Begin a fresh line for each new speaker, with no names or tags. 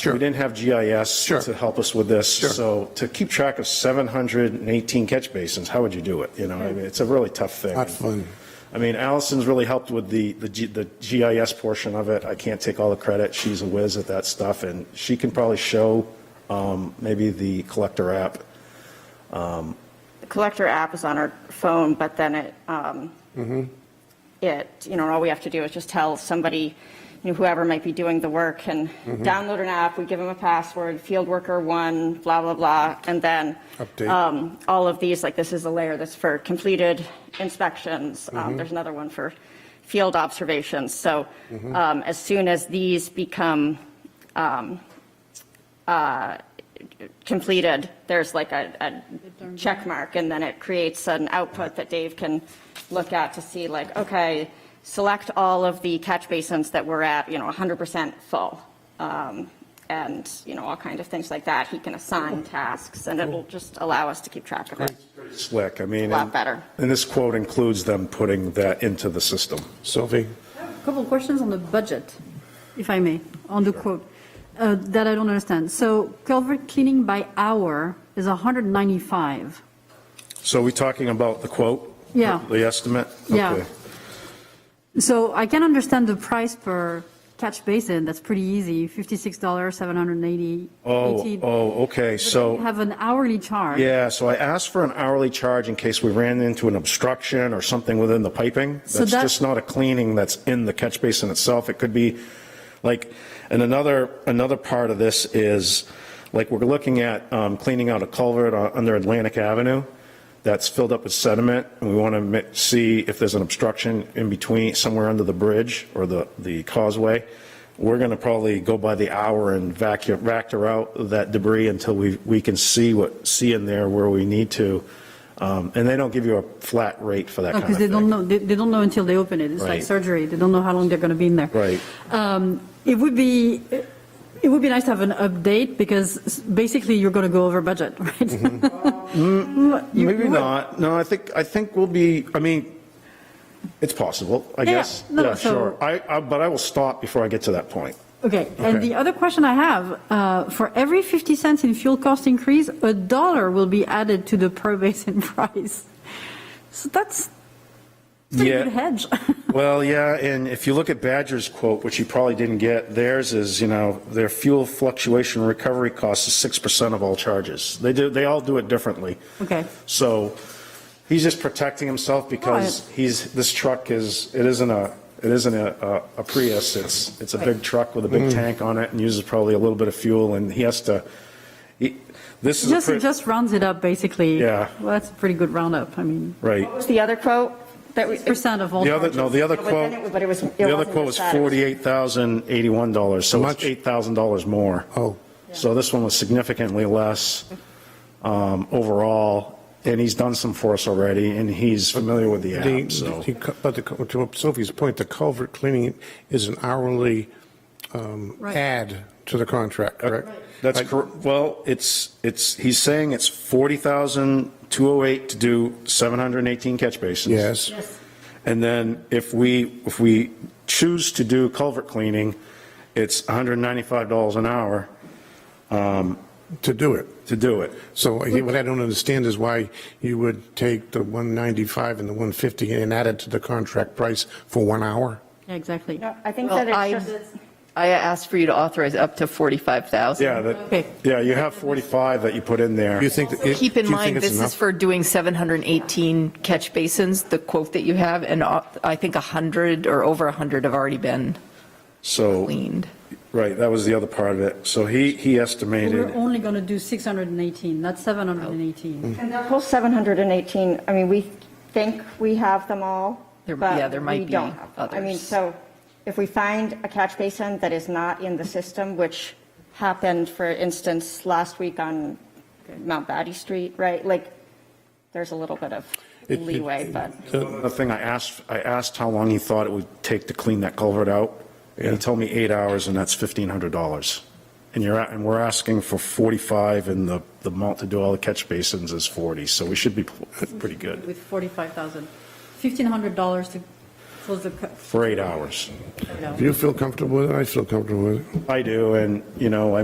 Sure.
We didn't have GIS
Sure.
to help us with this.
Sure.
So to keep track of 718 catch basins, how would you do it? You know, I mean, it's a really tough thing.
Not fun.
I mean, Allison's really helped with the, the G- the GIS portion of it. I can't take all the credit. She's a whiz at that stuff, and she can probably show um, maybe the collector app.
The collector app is on our phone, but then it, um, it, you know, all we have to do is just tell somebody, you know, whoever might be doing the work can download an app, we give them a password, field worker one, blah, blah, blah, and then
Update.
um, all of these, like this is a layer that's for completed inspections. Um, There's another one for field observations. So um, as soon as these become completed, there's like a, a check mark, and then it creates an output that Dave can look at to see like, okay, select all of the catch basins that we're at, you know, 100% full. um, And, you know, all kind of things like that. He can assign tasks, and it will just allow us to keep track of it.
Slick, I mean.
A lot
and-
better.
And this quote includes them putting that into the system.
Sylvie?
Couple of questions on the budget, if I may, on the quote, uh, that I don't understand. So culvert cleaning by hour is 195.
So are we talking about the quote?
Yeah.
The estimate?
Yeah.
Okay.
So I can understand the price per catch basin, that's pretty easy, $56, 780.
Oh,
18.
oh, okay, so.
Have an hourly charge.
Yeah, so I asked for an hourly charge in case we ran into an obstruction or something within the piping.
So
That's
that-
just not a cleaning that's in the catch basin itself. It could be like, and another, another part of this is, like, we're looking at um, cleaning out a culvert on- under Atlantic Avenue that's filled up with sediment, and we want to see if there's an obstruction in between, somewhere under the bridge or the, the causeway. We're going to probably go by the hour and vacuum, vector out that debris until we, we can see what, see in there where we need to. Um, And they don't give you a flat rate for that kind of
Because
thing.
they don't know, they they don't know until they open it. It's like
Right.
surgery, they don't know how long they're going to be in there.
Right.
Um, It would be, it would be nice to have an update, because basically you're going to go over budget, right?
Mm-hmm.
You-
Maybe
you would.
not. No, I think, I think we'll be, I mean, it's possible, I
Yeah,
guess.
no,
Yeah,
so-
sure. I, I- but I will stop before I get to that point.
Okay,
Okay.
and the other question I have, uh, for every 50 cents in fuel cost increase, a dollar will be added to the per basin price. So that's that's a
Yeah.
good hedge.
Well, yeah, and if you look at Badger's quote, which you probably didn't get, theirs is, you know, their fuel fluctuation recovery cost is 6% of all charges. They do, they all do it differently.
Okay.
So he's just protecting himself because he's, this truck is, it isn't a, it isn't a, a Prius. It's, it's a big truck with a
Mm.
big tank on it and uses probably a little bit of fuel and he has to, he- this is, a
Just,
pre-
just rounds it up, basically.
Yeah.
Well, that's a pretty good roundup, I mean,
right.
What's the other quote that we?
percent of all.
The other, no, the other
But then
quote,
it- But it was. it
the other
wasn't
quote was
just that, it
$48,081, so it's
Much.
$8,000 more.
Oh,
So this one was significantly less um, overall, and he's done some for us already, and he's familiar with the
the,
app, so.
the cu- but the, cu- to Sylvia's point, the culvert cleaning is an hourly um,
Right.
add to the contract, correct?
That's
Like,
correct. Well, it's, it's, he's saying it's 40,208 to do 718 catch basins.
Yes,
And then if we, if we choose to do culvert cleaning, it's $195 an hour
to do it.
to do it.
So what I don't understand is why you would take the 195 and the 150 and add it to the contract price for one hour?
Yeah, Exactly.
No, I think that
Well, I,
it's just.
I asked for you to authorize up to 45,000.
Yeah,
Okay.
that, yeah, you have 45 that you put in there.
Do you think? that it-
Keep
do
in
you
mind,
think it's
this is
enough?
for doing 718 catch basins, the quote that you have, and uh, I think 100 or over 100 have already been
So,
cleaned.
right, that was the other part of it. So he, he estimated.
We're only going to do 618, not 718.
And that whole 718, I mean, we think we have them all,
There- yeah,
but
there might
we
be
don't have them. I mean,
others.
so if we find a catch basin that is not in the system, which happened, for instance, last week on Mount Batty Street, right? Like, there's a little bit of
It- it-
leeway, but.
The thing I asked, I asked how long he thought it would take to clean that culvert out. And he told me eight hours and that's $1,500. And you're, at- and we're asking for 45 and the, the amount to do all the catch basins is 40. So we should be p- pretty good
With 45,000, $1,500 to close the, cu-
for eight hours.
you know.
If you feel comfortable with it, I feel comfortable with it.
I do. And, you know, I